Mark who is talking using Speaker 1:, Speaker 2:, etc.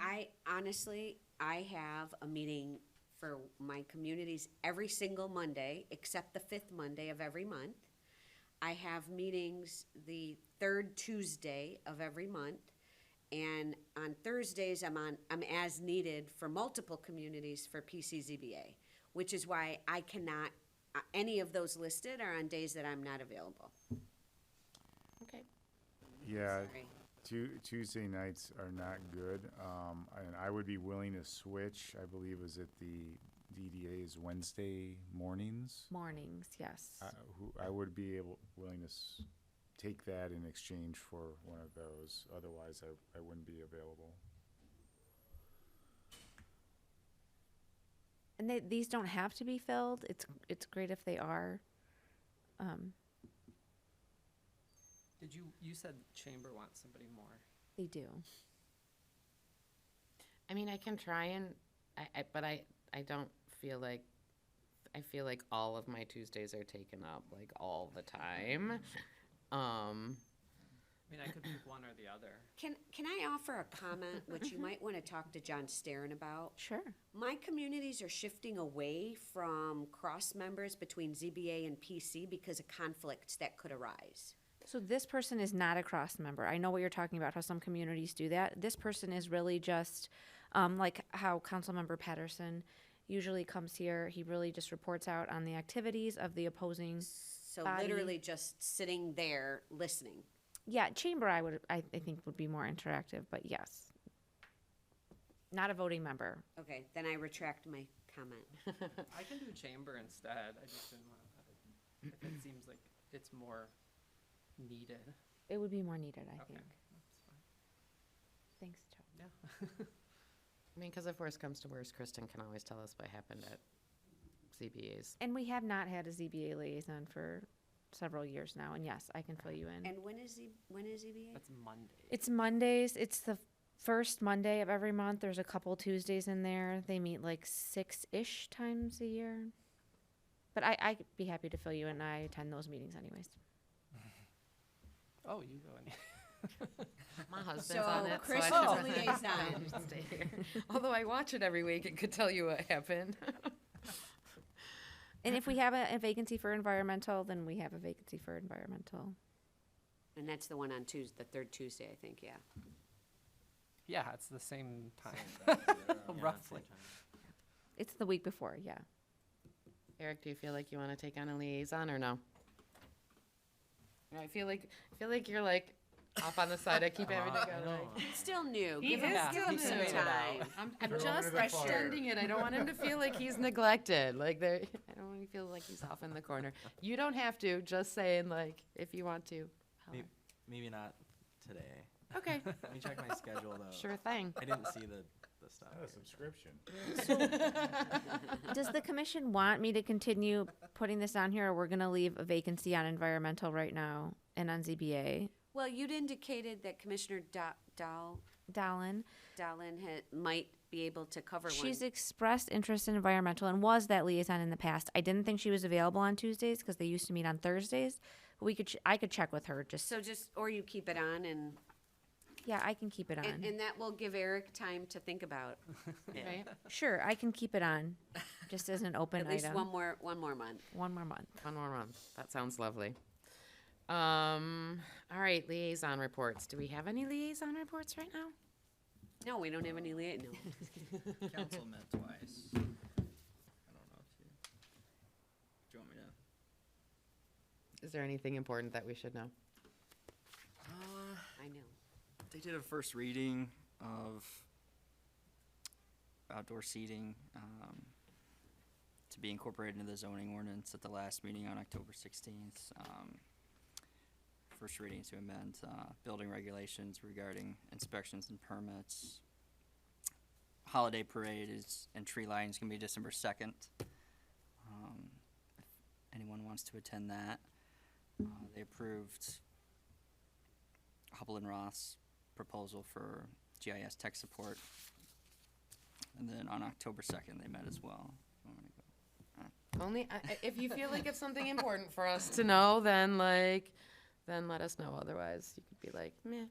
Speaker 1: I honestly, I have a meeting for my communities every single Monday, except the fifth Monday of every month. I have meetings the third Tuesday of every month. And on Thursdays, I'm on, I'm as needed for multiple communities for PCZBA, which is why I cannot, uh, any of those listed are on days that I'm not available.
Speaker 2: Okay.
Speaker 3: Yeah,
Speaker 1: Sorry.
Speaker 3: Tu- Tuesday nights are not good, um, and I would be willing to switch, I believe is it the DDA is Wednesday mornings?
Speaker 2: Mornings, yes.
Speaker 3: I, who, I would be able, willing to s- take that in exchange for one of those, otherwise I, I wouldn't be available.
Speaker 2: And they, these don't have to be filled. It's, it's great if they are. Um,
Speaker 4: Did you, you said chamber wants somebody more.
Speaker 2: They do.
Speaker 5: I mean, I can try and, I, I, but I, I don't feel like, I feel like all of my Tuesdays are taken up, like all the time. Um,
Speaker 4: I mean, I could pick one or the other.
Speaker 1: Can, can I offer a comment, which you might want to talk to John Sterren about?
Speaker 2: Sure.
Speaker 1: My communities are shifting away from cross members between ZBA and PC because of conflicts that could arise.
Speaker 2: So this person is not a cross member. I know what you're talking about, how some communities do that. This person is really just, um, like how Councilmember Patterson usually comes here. He really just reports out on the activities of the opposing.
Speaker 1: So
Speaker 2: Body.
Speaker 1: literally just sitting there listening.
Speaker 2: Yeah, chamber I would, I, I think would be more interactive, but yes. Not a voting member.
Speaker 1: Okay, then I retract my comment.
Speaker 4: I can do chamber instead. I just didn't want to, if it seems like it's more needed.
Speaker 2: It would be more needed, I
Speaker 4: Okay.
Speaker 2: think.
Speaker 4: That's fine.
Speaker 2: Thanks, Joe.
Speaker 4: Yeah.
Speaker 5: I mean, because if worse comes to worse, Kristen can always tell us what happened at CBA's.
Speaker 2: And we have not had a ZBA liaison for several years now, and yes, I can fill you in.
Speaker 1: And when is Z, when is ZBA?
Speaker 4: That's Monday.
Speaker 2: It's Mondays, it's the first Monday of every month, there's a couple Tuesdays in there, they meet like six-ish times a year. But I, I'd be happy to fill you in, I attend those meetings anyways.
Speaker 4: Oh, you go in.
Speaker 5: My husband's
Speaker 1: So
Speaker 5: on it, so I
Speaker 1: Kristen's
Speaker 5: don't-
Speaker 1: a liaison.
Speaker 5: I stay here. Although I watch it every week, it could tell you what happened.
Speaker 2: And if we have a, a vacancy for environmental, then we have a vacancy for environmental.
Speaker 1: And that's the one on Tuesday, the third Tuesday, I think, yeah.
Speaker 4: Yeah, it's the same time, roughly.
Speaker 2: It's the week before, yeah.
Speaker 5: Eric, do you feel like you want to take on a liaison or no? No, I feel like, I feel like you're like off on the side. I keep having to go like.
Speaker 1: It's still new,
Speaker 5: He
Speaker 1: give him
Speaker 5: is
Speaker 1: give him
Speaker 5: still
Speaker 1: some
Speaker 5: new.
Speaker 1: time.
Speaker 5: I'm, I'm
Speaker 3: Throw him
Speaker 5: just
Speaker 3: into the fire.
Speaker 5: extending it. I don't want him to feel like he's neglected. Like there, I don't want him to feel like he's off in the corner. You don't have to. Just saying, like if you want to. holler.
Speaker 6: Maybe, maybe not today.
Speaker 5: Okay,
Speaker 6: Let me check my schedule though.
Speaker 5: sure thing.
Speaker 6: I didn't see the, the stuff.
Speaker 3: Not
Speaker 6: here.
Speaker 3: a subscription.
Speaker 2: Does the commission want me to continue putting this on here, or we're gonna leave a vacancy on environmental right now and on ZBA?
Speaker 1: Well, you'd indicated that Commissioner Da- Dahl,
Speaker 2: Dallin,
Speaker 1: Dahlin had, might be able to cover one.
Speaker 2: she's expressed interest in environmental and was that liaison in the past. I didn't think she was available on Tuesdays because they used to meet on Thursdays. But we could, ch- I could check with her. Just
Speaker 1: So just, or you keep it on and,
Speaker 2: yeah, I can keep it on.
Speaker 1: and, and that will give Eric time to think about
Speaker 5: Right?
Speaker 2: sure, I can keep it on, just as an open
Speaker 1: at least
Speaker 2: item.
Speaker 1: one more, one more month.
Speaker 2: One more month.
Speaker 5: One more month. That sounds lovely. Um. All right, liaison reports. Do we have any liaison reports right now?
Speaker 1: No, we don't have any lia, no.
Speaker 7: Council met twice. I don't know if you, do you want me to?
Speaker 5: Is there anything important that we should know?
Speaker 7: Uh,
Speaker 1: I know.
Speaker 7: they did a first reading of outdoor seating, um, to be incorporated into the zoning ordinance at the last meeting on October sixteenth. Um, first reading to amend, uh, building regulations regarding inspections and permits. Holiday parade is, and tree lighting's gonna be December second. Um, if anyone wants to attend that, uh, they approved Hubble and Ross proposal for GIS tech support. And then on October second, they met as well. I'm gonna go-
Speaker 5: Only I- I- if you feel like it's something important for us to know, then like, then let us know. Otherwise, you could be like, meh.